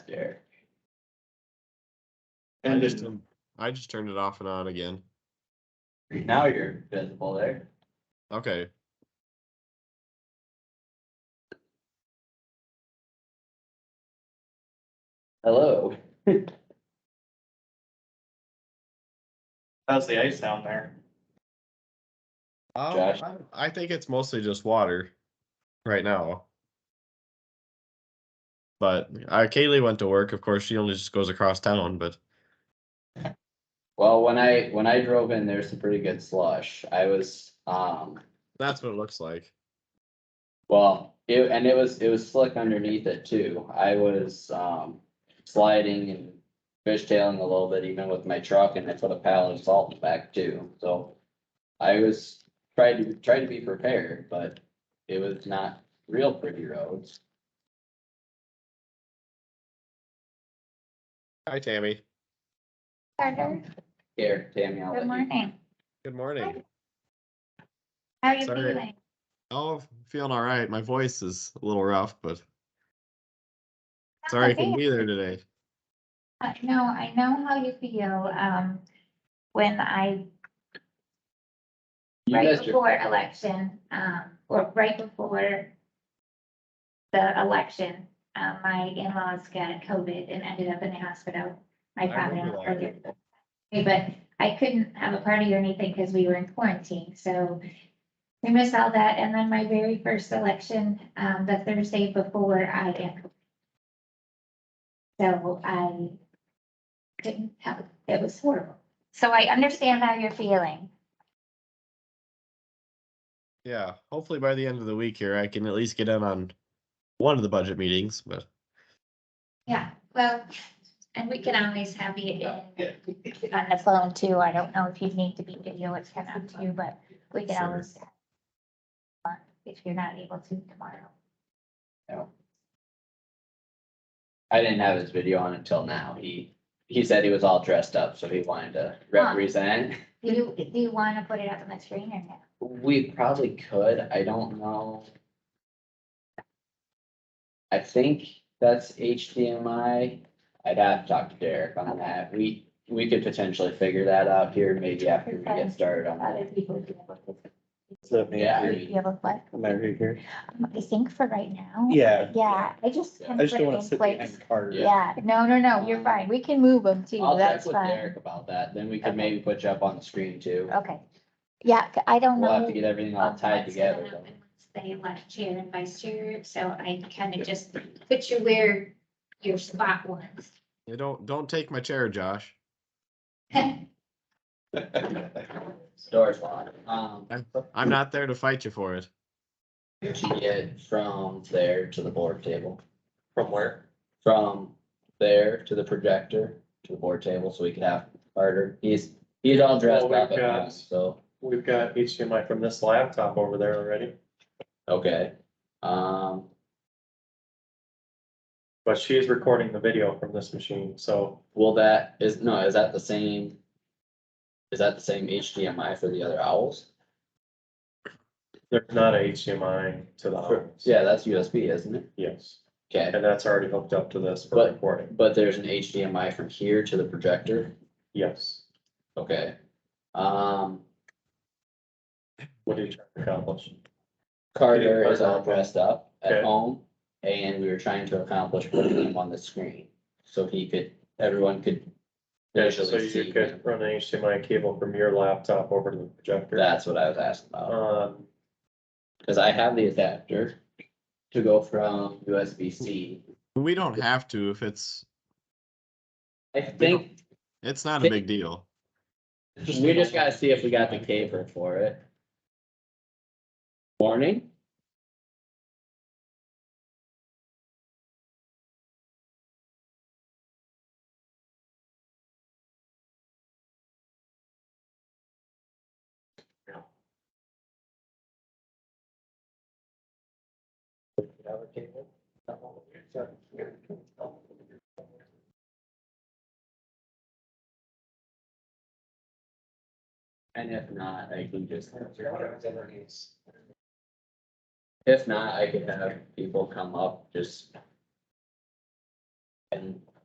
I And just, then- I just turned it off and on again. Now you're visible there. Okay. Hello. how's the ice down there? Um, Josh? I, I think it's mostly just water right now. But uh, Kaylee went to work. Of course, she only just goes across town, but Well, when I, when I drove in, there's some pretty good slush. I was, um, that's what it looks like. well, it, and it was, it was slick underneath it too. I was, um, sliding and fishtailing a little bit even with my truck and I put a pallet of salt in the back too, so. I was trying to, trying to be prepared, but it was not real pretty roads. Hi, Tammy. Carter, Here, Tammy, I'll let good you. morning. Good morning. How are you Sorry. feeling? Oh, feeling all right. My voice is a little rough, but That's sorry I couldn't okay. be there today. Uh, No, I know how you feel, um, when I, You right missed your- before election, um, or right before the election, uh, my in-laws got COVID and ended up in the hospital. My I remember father. ordered- But I couldn't have a party or anything because we were in quarantine, so I missed all that. And then my very first election, um, the Thursday before I am. So I couldn't help, it was horrible. So I understand how you're feeling. Yeah, hopefully by the end of the week here, I can at least get in on one of the budget meetings, but Yeah, well, and we can always have you in on the phone too. I don't know if you need to be video, it's kind of up to you, but we can Sure. always if you're not able to tomorrow. I didn't have his video on until now. He, he said he was all dressed up, so he wanted to represent. Do you, do you want to put it up on the screen or no? We probably could, I don't know. I think that's HDMI. I'd have to talk to Derek on that. We, we could potentially figure that out here maybe after we get started on Other that. people do have a- Yeah. Do you have a what? Am I right here? Um, I think for right now. Yeah, Yeah, I just. I can I just put don't it wanna in sit place. behind Carter. Yeah, no, no, no, you're fine. We can move them too. Um, I'll check That's with fine. Derek about that, then we could Okay. Oh, maybe put you up on the screen too. Okay. Yeah, c- I don't know. We'll have to get everything all of tied what's together. going on though. and what's They left chair and vice chair, so I kind of just put you where your spot was. you don't don't take my chair, Josh. Doors locked. Um, I'm not there to fight you for it. to get from there to the board table. From where? From there to the projector, to the board table, so we could have Carter, he's, he's all dressed Well, up we've at got- home, so, We've got HDMI from this laptop over there already, okay. Um, but she's recording the video from this machine, so will that, is, no, is that the same? Is that the same HDMI for the other owls? there's not a HDMI to the house. Oh, Yeah, that's USB, isn't it? Yes, Okay, and that's already hooked up to this for But- recording, but there's an HDMI from here to the projector, yes, okay. Um, what did you try to accomplish? Carter is all Carter. dressed up Okay. at home, and we were trying to accomplish putting him on the screen, so he could, everyone could So visually see him. you could run an HDMI cable from your laptop over to the projector. That's what I was asking about, Um, because I have the adapter to go from USB-C. We don't have to if it's I think, it's not a big deal. we just gotta see if we got the cable for it. Morning? And if not, I can just. If not, I could have people come up just. And